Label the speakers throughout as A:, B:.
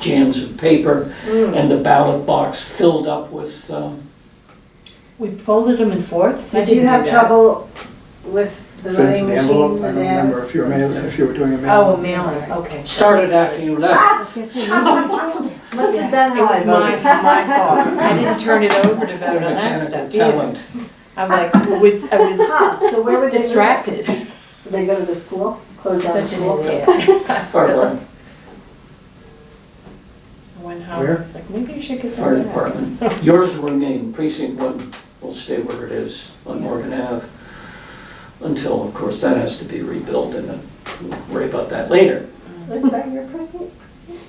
A: jams of paper and the ballot box filled up with, um,
B: We folded them in fourths? I
C: Did you
B: didn't
C: have
B: do that.
C: trouble with the
D: Fit into
C: voting
D: the
C: machine,
D: envelope,
C: the
D: I don't remember
C: dams?
D: if you were mail, if you were doing a
B: Oh, a
D: mail.
B: mailer, okay.
A: started after you
B: Ah,
A: left.
C: Must have been
B: It
C: how I
B: was my, my
C: voted.
B: fault. I didn't turn it over to vote on that
A: Mechanical
B: stuff either.
A: talent.
B: I'm like, I was, I was
C: Huh, Ah, So where would they? go?
B: distracted.
C: They go to the school, close down the
B: Such an
C: school?
B: idiot.
A: Fire,
B: Went home, I
D: Where?
B: was like, maybe I should get that.
A: fire
B: back.
A: department. Yours will remain, precinct one will stay where it is on Morgan Ave. Until, of course, that has to be rebuilt and then we'll worry about that later.
C: Looks like you're precinct. precinct?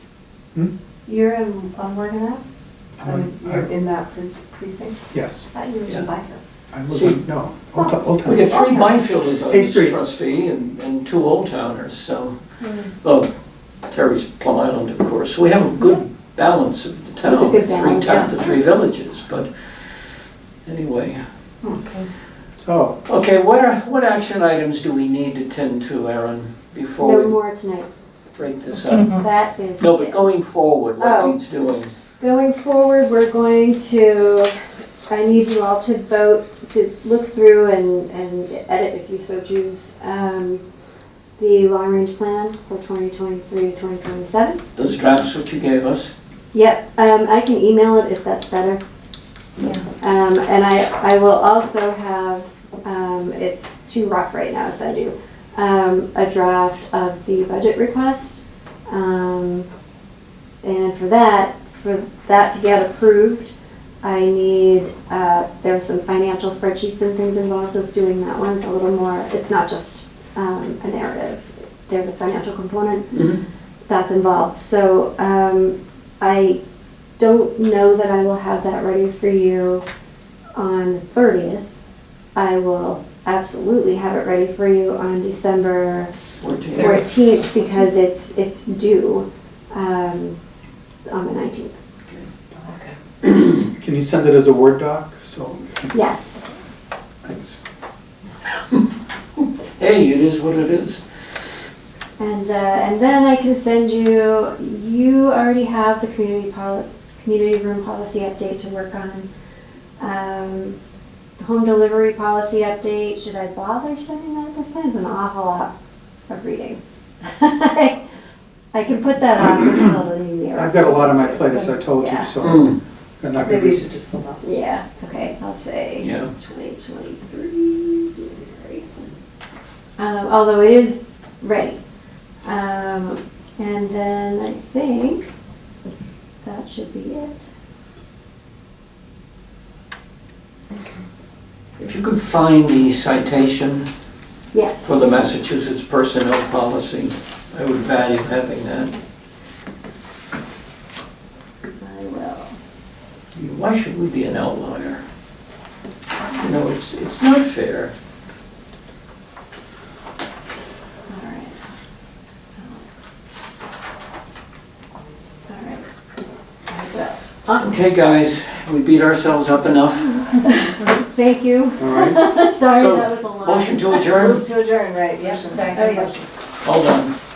D: Hmm?
C: You're in, on Morgan Ave?
D: I
C: I mean,
D: would-
C: You're
D: I-
C: in that precinct- precinct?
D: Yes,
C: I thought you were
A: Yeah.
C: in Bison.
D: I live in, no, Old Town, Old
A: We
D: Town.
A: get three Byfielders on
D: Hey,
A: this
D: Street.
A: trustee and, and two Old Towners, so,
C: Hmm.
A: oh, Terry's Plum Island, of course. So we have a good balance of the
C: a
A: town,
C: good
A: three
C: balance,
A: towns, the three villages, but anyway.
D: So,
A: Okay, what are, what action items do we need to tend to, Aaron, before
E: No
A: we
E: more tonight.
A: break this up?
E: That is
A: No, but
E: it.
A: going forward, what
E: Oh.
A: needs doing?
E: Going forward, we're going to, I need you all to vote, to look through and, and edit if you so choose, um, the long-range plan for 2023 to 2027.
A: Those drafts which you gave us?
E: Yep, um, I can email it if that's better.
A: Yeah.
E: Um, and I, I will also have, um, it's too rough right now, so I do, um, a draft of the budget request. Um, and for that, for that to get approved, I need, uh, there's some financial spreadsheets and things involved with doing that one, so a little more, it's not just, um, a narrative. There's a financial component
A: Mhm.
E: that's involved. So um, I don't know that I will have that ready for you on the 30th. I will absolutely have it ready for you on December
A: Fourteen.
E: 14th because it's, it's due um, on the 19th.
B: Okay.
D: can you send it as a Word doc? So,
E: Yes.
D: thanks.
A: Hey, it is what it is.
E: And, uh, and then I can send you, you already have the community policy, community room policy update to work on. Um, home delivery policy update, should I bother sending that this time? It's an awful lot of reading. I can put that off until the new year.
D: I've got a lot on my plate, as I told you,
E: Yeah.
D: so
A: Mm,
D: I'm not gonna
C: Maybe you
D: be,
C: should just hold on.
E: Yeah, okay, I'll say.
A: Yeah.
E: Twenty twenty-three, January. Um, although it is ready. Um, and then I think that should be it.
A: If you could find the citation
E: Yes,
A: for the Massachusetts personnel policy, I would value having that.
E: I will.
A: Why should we be an outlier? You know, it's, it's not fair.
E: All right. Alex. All right. I will. Awesome.
A: Okay, guys, we beat ourselves up enough.
E: Thank you.
D: all right?
E: Sorry,
A: So,
E: that was a lot.
A: Motion to adjourn?
C: Move to adjourn, right, yeah.
B: Second.
C: Oh, yeah.
A: Hold on.